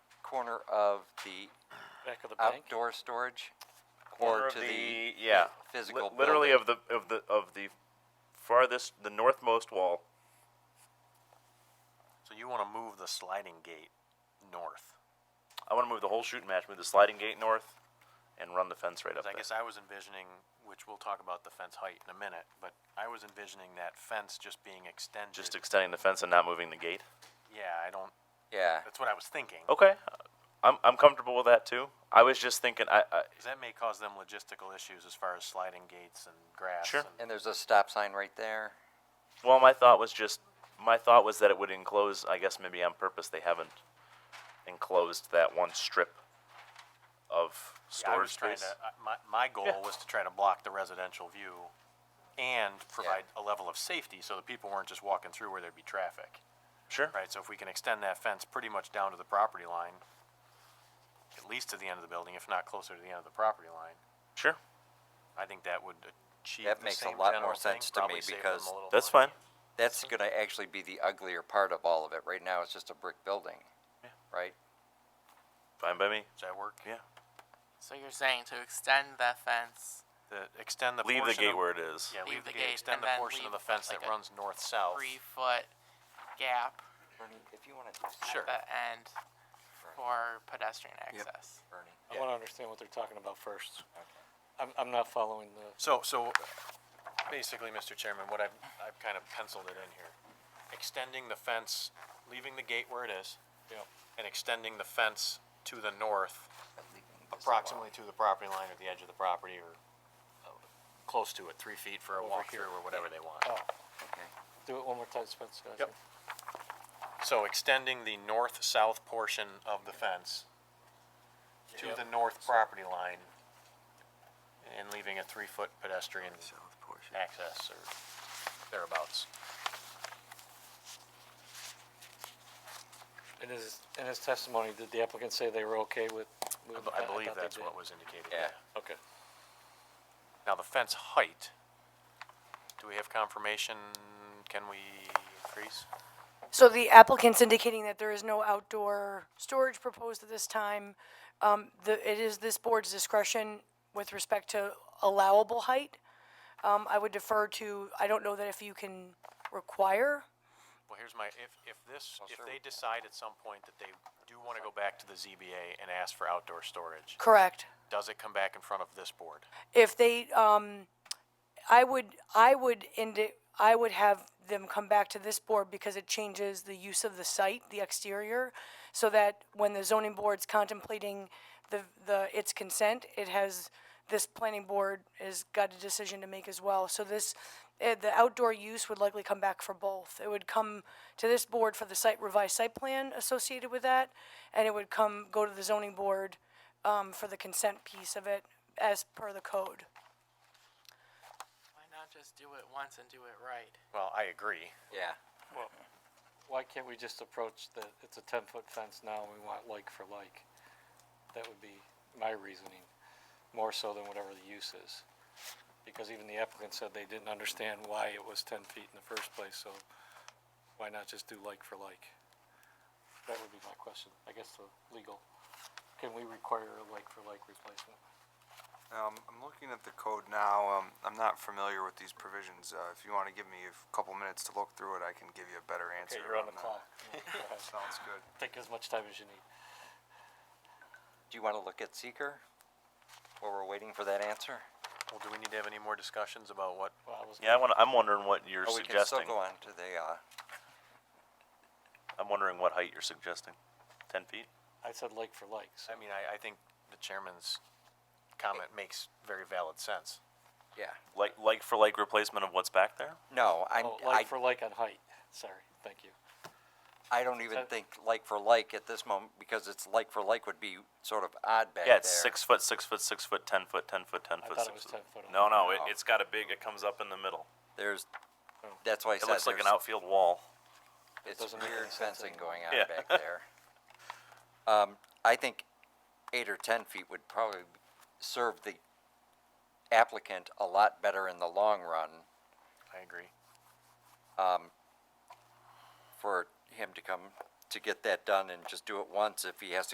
corner of the Back of the Uh, bank. outdoor storage? corner Or of to the, the yeah, physical li- literally building? of the of the of the farthest the northmost wall. So you want to move the sliding gate north? I want to move the whole shooting match, move the sliding gate north, and run the fence right up 'Cause I there. guess I was envisioning, which we'll talk about the fence height in a minute, but I was envisioning that fence just being extended. Just extending the fence and not moving the gate. yeah, I don't. Yeah, That's what I was thinking. Okay, I'm I'm comfortable with that too. I was just thinking, I, I 'Cause that may cause them logistical issues as far as sliding gates and grass. Sure. And, and there's a stop sign right there. well, my thought was just my thought was that it would enclose. I guess maybe on purpose they haven't enclosed that one strip of yeah, I storage was trying space. to. I- My, my goal Yeah. was to try to block the residential view, and provide a level of safety so that people weren't just walking through where there'd be traffic. Sure. Right, so if we can extend that fence pretty much down to the property line, at least to the end of the building, if not closer to the end of the property line, Sure. I think that would achieve That the makes a same lot general more thing, sense to me probably save them because a little That's money. fine. That's gonna actually be the uglier part of all of it. Right now, it's just a brick building, right? Fine by me. Does that work? Yeah. So you're saying to extend the fence The, extend the Leave the portion gate of- where it is. Yeah, leave the gate, extend and the then portion of leave the fence like that a runs north-south. three foot gap Bernie, if you wanna. Sure. at the end for pedestrian access? Bernie. I want to understand what they're talking about first. I'm, I'm not following the, So, so basically, Mr. Chairman, what I've, I've kind of penciled it in here. Extending the fence, leaving the gate where it is, you know, and extending the fence to the north approximately to the property line or the edge of the property or uh, close to it, three feet for a walkthrough or whatever they want. oh, Okay. do it one more time, Spencer. I Yep. think. So extending the north-south portion of the fence to the north property line and leaving a three-foot pedestrian access or thereabouts. In his, in his testimony, did the applicant say they were okay with I moving b- that? I believe thought they that's did. what was indicated. Yeah. Okay. Now, the fence height, do we have confirmation? Can we increase? So the applicant's indicating that there is no outdoor storage proposed at this time. Um, the, it is this board's discretion with respect to allowable height. Um, I would defer to, I don't know that if you can require, Well, here's my, if, if this, if sir, they decide at some point that they do want to go back to the ZBA and ask for outdoor storage, correct? does it come back in front of this board? If they, um, I would, I would end it, I would have them come back to this board because it changes the use of the site, the exterior, so that when the zoning board's contemplating the, the, its consent, it has, this planning board has got a decision to make as well. So this, eh, the outdoor use would likely come back for both. It would come to this board for the site, revised site plan associated with that, and it would come, go to the zoning board, um, for the consent piece of it as per the code. Why not just do it once and do it right? Well, I agree. Yeah. Why can't we just approach the, it's a ten-foot fence now, and we want like for like? That would be my reasoning, more so than whatever the use is. Because even the applicant said they didn't understand why it was ten feet in the first place, so why not just do like for like? That would be my question, I guess the legal, can we require a like for like replacement? Um, I'm looking at the code now, um, I'm not familiar with these provisions, uh, if you wanna give me a f- couple minutes to look through it, I can give you a better answer. Okay, you're on the that. clock, Go ahead. Sounds good. take as much time as you need. Do you wanna look at seeker while we're waiting for that answer? Well, do we need to have any more discussions about what? Well, I was Yeah, I want. I'm wondering what you're Or we can suggesting. still go on to the, uh, I'm wondering what height you're suggesting. Ten feet. I said like for like, so I mean, I, I think the chairman's comment makes very valid sense. yeah. Like like for like replacement of what's back there. No, I'm, Oh, I, like for like on height, sorry, thank you. I don't even so- think like for like at this moment, because it's like for like would be sort of odd back there. Yeah, it's six foot, six foot, six foot, ten foot, ten foot, ten I foot, thought six it was foot. 10 foot on No, no, it, No. it's got a big. It comes up in the middle. There's, that's why I It said looks like an there's- outfield wall. It's doesn't make weird any sense fencing anymore. going on Yeah. back there. Um, I think eight or ten feet would probably serve the applicant a lot better in the long run I agree. for him to come to get that done and just do it once if he has to